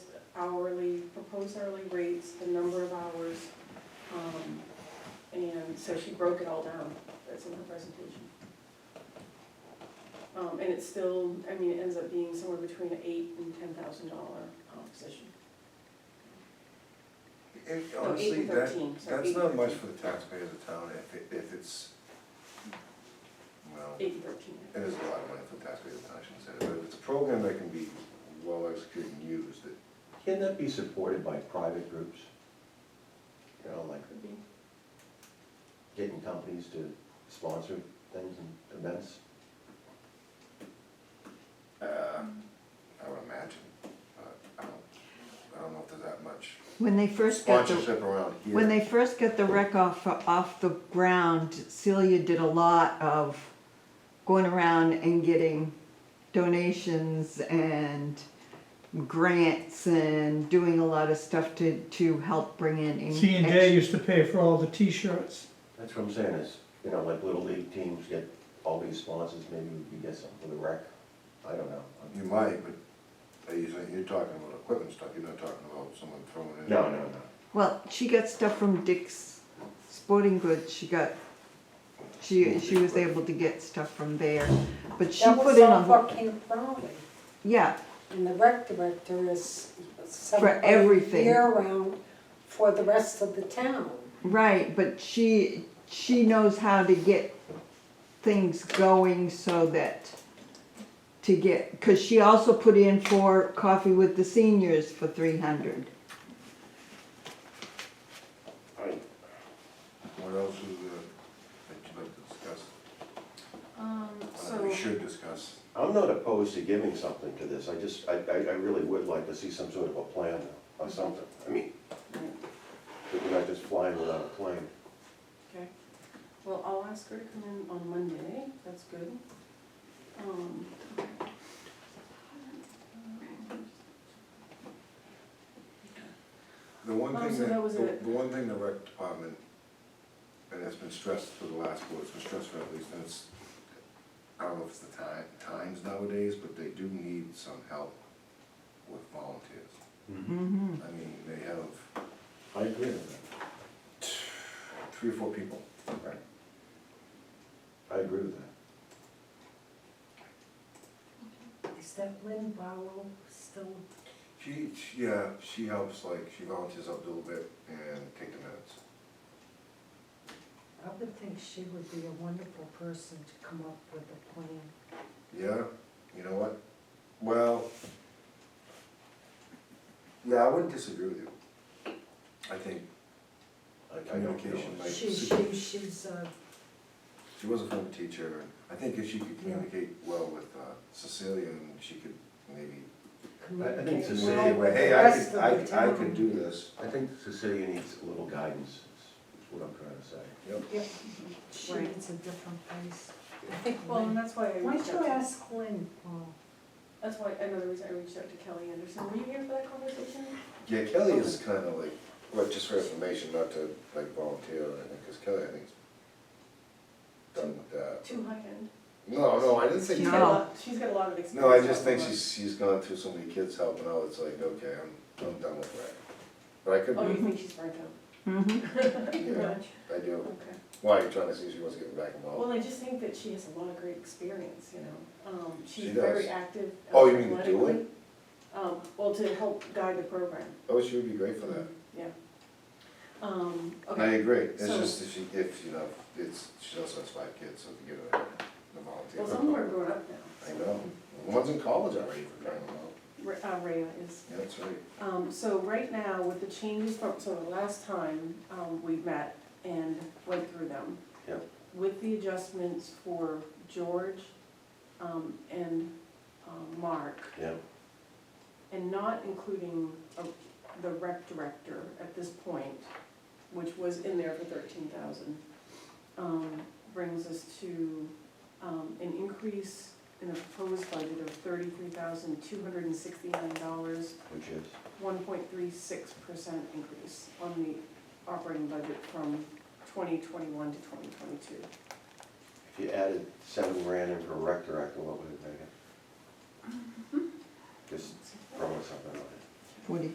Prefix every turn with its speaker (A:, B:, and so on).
A: hourly, proposed hourly rates, the number of hours. um, And so she broke it all down, that's in her presentation. Um, and it's still, I mean, it ends up being somewhere between eight and ten thousand dollar position.
B: It-
A: No, eight
B: Honestly,
A: and
B: that,
A: thirteen, sorry. eight
B: that's
A: and
B: not much
A: 13.
B: for the taxpayer of the town if, it- if it's, well, it
A: Eight and thirteen.
B: is a lot of money for the taxpayer of the town, I shouldn't say, that, but if it's a program that can be well executed and used, it,
C: Can that be supported by private groups? You know, like
A: Could be.
C: getting companies to sponsor things and events?
B: uh, I would imagine, but I don't, I don't know if there's that much
D: When they first got the,
B: sponsorship around here.
D: when they first got the wreck off, off the ground, Celia did a lot of going around and getting donations and grants and doing a lot of stuff to, to help bring in. in-
E: C and J used to pay for all the t-shirts.
C: That's what I'm saying is, you know, like little league teams get all these sponsors, maybe we could get something for the rec. I don't know.
B: You might, but they usually, you're talking about equipment stuff, you're not talking about someone throwing in.
C: No, no, no.
D: Well, she got stuff from Dick's Sporting Goods, she got, she, she was able to get stuff from there, but she
F: That
D: put
F: was
D: in
F: all for
D: a,
F: Camp Crowley,
D: yeah,
F: and the rec director is somebody
D: everything.
F: year-round for the rest of the town.
D: Right, but she, she knows how to get things going so that, to get, cause she also put in for Coffee with the Seniors for three hundred.
B: What else is, uh, that you'd like to discuss,
A: Um,
B: Uh,
A: so,
B: we should discuss?
C: I'm not opposed to giving something to this, I just, I, I, I really would like to see some sort of a plan or something. I mean, that we're not just flying without a plane.
A: okay, well, I'll ask her to come in on Monday, that's good. Um,
B: The one
A: Oh,
B: thing
A: so
B: that,
A: that was
B: the
A: it.
B: the one thing the rec department, and it's been stressed for the last, well, it's been stressed for at least, and it's, I don't know if it's the time, times nowadays, but they do need some help with volunteers.
A: Hmm.
D: Mm-hmm.
B: I mean, they have
C: I agree with
B: three or four people.
C: that. Right. I agree with that.
F: Is that Lynn Barrow still?
B: She, she- yeah, she helps, like, she volunteers up a little bit and take the minutes.
F: I would think she would be a wonderful person to come up with a plan.
B: Yeah, you know what? Well, yeah, I wouldn't disagree with you. I think
C: I- I don't feel
B: Communication,
C: it's-
B: like-
F: She, she, she's a,
B: She was a former teacher, and I think if she could
F: Yeah.
B: communicate well with uh, Cecilia, and she could maybe
C: I think
F: communicates
B: say,
C: Cecilia
B: well,
F: well with
B: hey,
F: the
B: I
F: rest
B: could, I
F: of
B: could,
F: the
B: I could
F: town.
B: do this.
C: I think Cecilia needs a little guidance, is- is what I'm trying to say.
B: Yep.
F: Yep, she
A: Right.
F: needs a different place. I think
A: well, and
F: Lynn-
A: that's why I
F: Why
A: reached
F: don't you
A: out to,
F: ask Lynn, Paul?
A: that's why, another reason I reached out to Kelly Anderson, were you here for that conversation?
B: Yeah, Kelly is kind of like, well, just for information, not to like volunteer or anything, because Kelly, I think, is done with that.
A: Too high end.
B: No, no, I didn't say
A: She's
B: Kelly.
A: got a lot, she's got a lot of experience.
B: No, I just think
A: on that.
B: she's, she's gone through so many kids helping out, it's like, okay, I'm, I'm done with that. But I could
A: Oh, you
B: be,
A: think she's burnt out?
D: Mm-hmm.
B: yeah, I do.
A: Okay.
B: Why, are you trying to see if she wants to get back involved?
A: Well, I just think that she has a lot of great experience, you know. Um, she's
B: She does.
A: very active. uh,
B: Oh, you mean to do
A: athletically. Um, well, to help guide the program, Mm-hmm,
B: Oh, she would be great for that.
A: yeah. Um,
B: I
A: okay,
B: agree, it's
A: So-
B: just if she, if, you know, it's, she also has five kids, so if you get her the volunteer.
A: well, some of them are grown up now.
B: I know, one's in college already for crying out loud,
A: Ra- Uh, Rhea is.
B: yeah, that's right.
A: Um, so right now, with the changes from, so the last time, um, we met and went through them.
C: Yep.
A: With the adjustments for George, um, and, um, Mark,
C: Yeah,
A: and not including a- the rec director at this point, which was in there for thirteen thousand, um, brings us to, um, an increase in the proposed budget of thirty-three thousand, two hundred and sixty-nine dollars,
C: which is,
A: one point three six percent increase on the operating budget from twenty twenty-one to twenty twenty-two.
C: if you added seven grand in for rec director, what would it make it? Just throwing something on it.
D: Forty,